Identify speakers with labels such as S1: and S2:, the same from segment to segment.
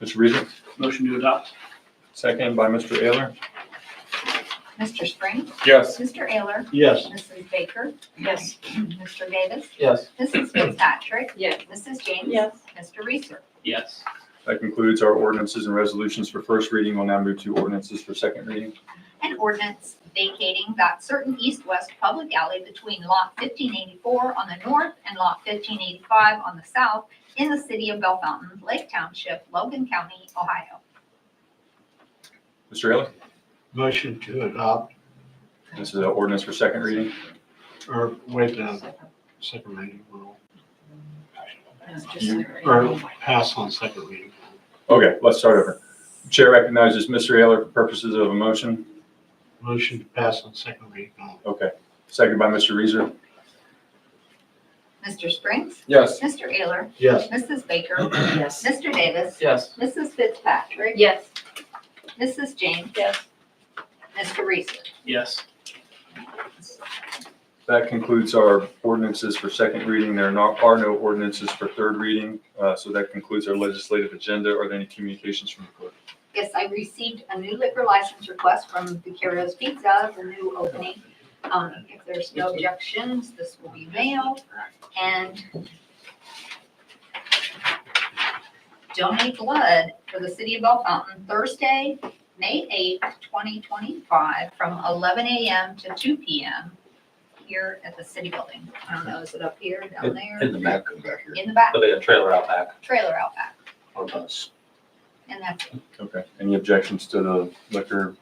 S1: Mr. Reason,
S2: Motion to adopt?
S1: second by Mr. Ayler.
S3: Mr. Spring,
S1: Yes.
S3: Mr. Ayler,
S2: Yes.
S3: Mrs. Baker,
S4: Yes.
S3: Mr. Davis,
S2: Yes.
S3: Mrs. Fitzpatrick,
S4: Yes.
S3: Mrs. James.
S4: Yes.
S3: Mr. Reeser.
S2: Yes.
S1: That concludes our ordinances and resolutions for first reading. We'll now move to ordinances for second reading.
S3: An ordinance vacating that certain east-west public alley between lot fifteen eighty-four on the north and lot fifteen eighty-five on the south in the city of Belle Fountain, Lake Township, Logan County, Ohio.
S1: Mr. Ayler,
S5: Motion to adopt
S1: this is an ordinance for second reading.
S5: or waive the second reading rule, or
S4: Yes.
S5: pass on second reading.
S1: Okay, let's start over. Chair recognizes Mr. Ayler for purposes of a motion.
S5: Motion to pass on second reading. rule.
S1: Okay, second by Mr. Reeser.
S3: Mr. Springs,
S1: Yes.
S3: Mr. Ayler,
S5: Yes.
S3: Mrs. Baker,
S4: Yes.
S3: Mr. Davis,
S2: Yes.
S3: Mrs. Fitzpatrick,
S4: Yes.
S3: Mrs. James,
S4: Yes.
S3: Mr. Reeser.
S2: Yes.
S1: That concludes our ordinances for second reading. There are no- are no ordinances for third reading. Uh, So that concludes our legislative agenda. Are there any communications from the clerk?
S3: Yes, I received a new liquor license request from Vicaro's Pizza, the new opening. Um, if there's no objections, this will be mailed and donate blood for the city of Bell Fountain Thursday, May eighth, twenty twenty-five, from eleven AM to two PM here at the city building. I don't know, is it up here, down there,
S6: In the back, come back here
S3: in the back,
S6: But they got a trailer out back
S3: trailer out back,
S6: on us.
S3: and that's it.
S1: Okay, any objections to the liquor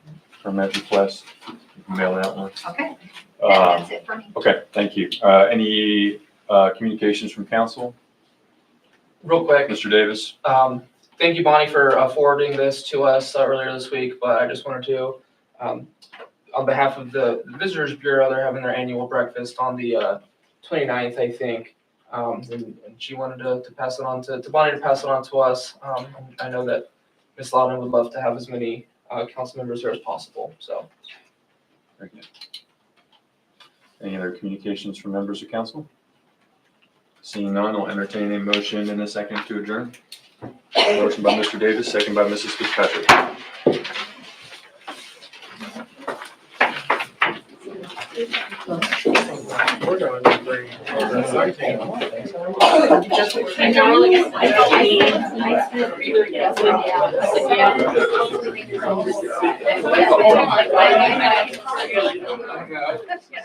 S1: permit request? You can Mail that one.
S3: Okay, that-
S1: Uh,
S3: that's it for me.
S1: Okay, thank you. Uh, Any uh, communications from council?
S7: Real quick,
S1: Mr. Davis?
S7: um, thank you, Bonnie, for uh, forwarding this to us uh, earlier this week, but I just wanted to, um, on behalf of the Visitors Bureau, they're having their annual breakfast on the, uh, 29th, I think. Um, and, and she wanted to, to pass it on to, to Bonnie to pass it on to us. Um, and I know that Ms. Loudon would love to have as many, uh, council members there as possible, so.
S1: Very good. Any other communications from members of council? Seeing none, I'll entertain a motion in a second to adjourn. Motion by Mr. Davis, second by Mrs. Fitzpatrick.
S2: We're going to bring.
S4: Yes.